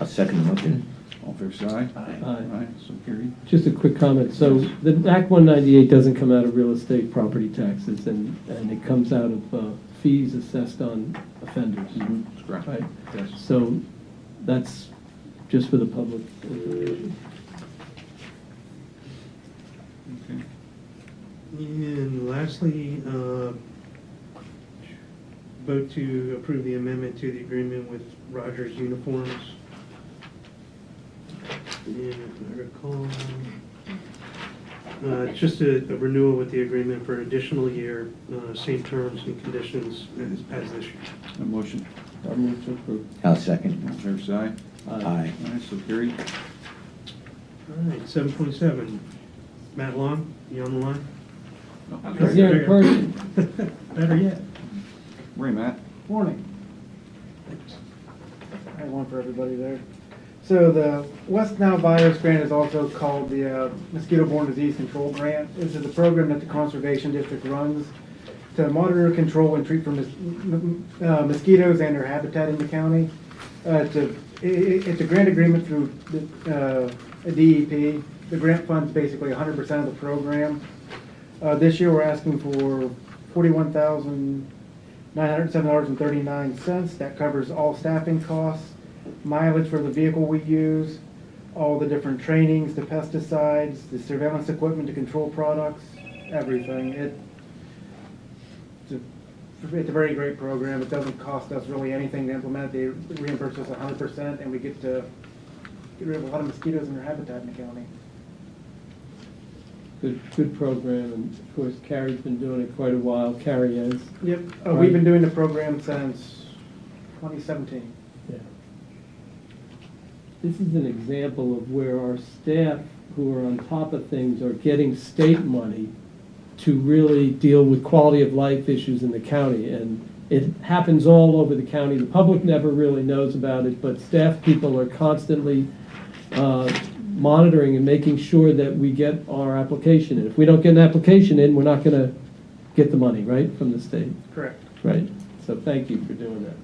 I'll second the motion. All fair side? Aye. Aye. Aye, so carried. Just a quick comment, so the Act 198 doesn't come out of real estate property taxes, and, and it comes out of uh, fees assessed on offenders, Mm-hmm. That's correct. right? Yes. So that's just for the public information. Okay. And lastly, uh, vote to approve the amendment to the agreement with Rogers Uniforms. And if I recall, uh, it's just a a renewal with the agreement for an additional year, uh, same terms and conditions as as this year. A motion, I'll move to approve. I'll all second. fair side? Aye. Aye, so carried. All right, seven point seven. Matt Long, you on the line? Oh, Is there a person? Better yet. Ray, Matt. Morning. I have one for everybody there. So the West Nile virus grant is also called the uh, mosquito-borne disease control grant. This is a program that the conservation district runs to monitor, control, and treat for mos- m- m- uh, mosquitoes and their habitat in the county. Uh, It's a, i- i- it's a grant agreement through the, uh, a DEP. The grant funds basically 100% of the program. Uh, This year, we're asking for forty-one thousand nine hundred seven dollars and thirty-nine cents. That covers all staffing costs, mileage for the vehicle we use, all the different trainings, the pesticides, the surveillance equipment to control products, everything. It, it's a- it's a very great program. It doesn't cost us really anything to implement. They reimburse us hundred percent, and we get to get rid of a lot of mosquitoes in their habitat in the county. Good, good program, and of course, Carrie's been doing it quite a while, Carrie is. Yep, uh, we've been doing the program since twenty seventeen. Yeah. This is an example of where our staff who are on top of things are getting state money to really deal with quality of life issues in the county. And it happens all over the county. The public never really knows about it, but staff people are constantly uh, monitoring and making sure that we get our application in. If we don't get an application in, we're not going to get the money, right, from the state? Correct. Right. So thank you for doing that.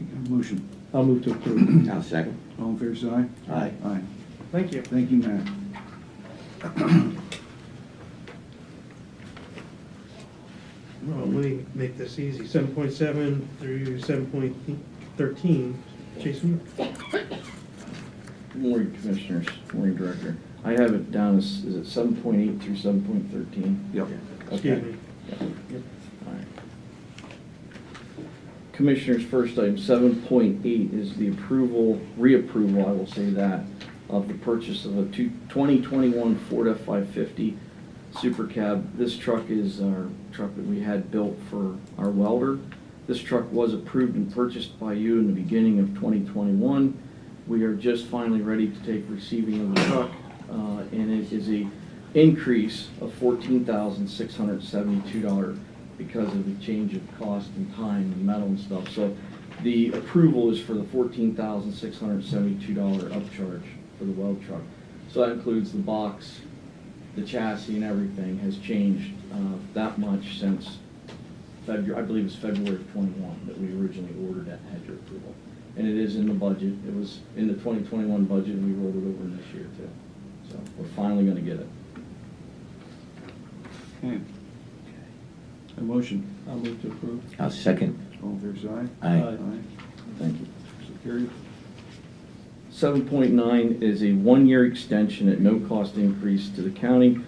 A Motion, I'll move to approve. I'll second. all fair side? Aye. Aye. Thank you. Thank you, Matt. Well, let me make this easy. Seven point seven through seven point thirteen. Jason? Good morning, Commissioners. Good morning, Director. I have it down as, is it seven point eight through seven point thirteen? Yep. Excuse me. Commissioners, first item, seven point eight is the approval, reapproval, I will say that, of the purchase of a two- 2021 Ford F five fifty Super Cab. This truck is our truck that we had built for our welder. This truck was approved and purchased by you in the beginning of twenty twenty-one. We are just finally ready to take receiving of the truck, uh, and it is a increase of fourteen thousand six hundred seventy-two dollar because of the change of cost and time and metal and stuff. So the approval is for the fourteen thousand six hundred seventy-two dollar upcharge for the weld truck. So that includes the box, the chassis and everything has changed uh, that much since February, I believe it's February of twenty-one that we originally ordered that had your approval. And it is in the budget, it was in the twenty twenty-one budget, and we rolled it over in this year too. So we're finally gonna get it. Okay. A motion, I'll move to approve. I'll second. all fair side? Aye. Aye, Thank you. so carried. Seven point nine is a one-year extension at no cost increase to the county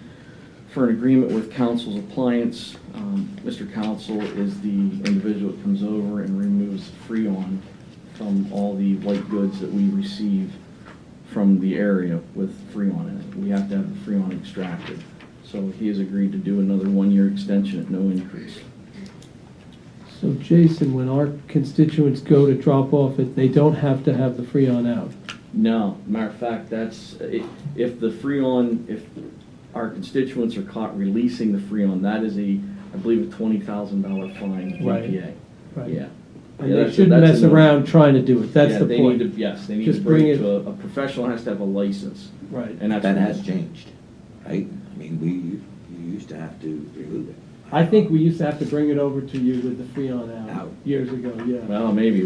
for an agreement with Council's Appliance. Um, Mr. Council is the individual that comes over and removes Freon from all the white goods that we receive from the area with Freon in it. We have to have the Freon extracted. So he has agreed to do another one-year extension at no increase. So Jason, when our constituents go to drop off it, they don't have to have the Freon out. No, matter of fact, that's, i- if the Freon, if our constituents are caught releasing the Freon, that is a, I believe, a twenty thousand dollar fine Right. EPA. Right. And Yeah. Yeah, they that's- shouldn't that's mess another- around trying to do it, that's Yeah, the they point. need to- Yes, they need to Just bring bring it it- to a, a professional has to have a license, Right. and that's. That what- has changed, right? I mean, we, you used to have to remove it. I think we used to have to bring it over to you with the Freon out Out. years ago, yeah. Well, maybe,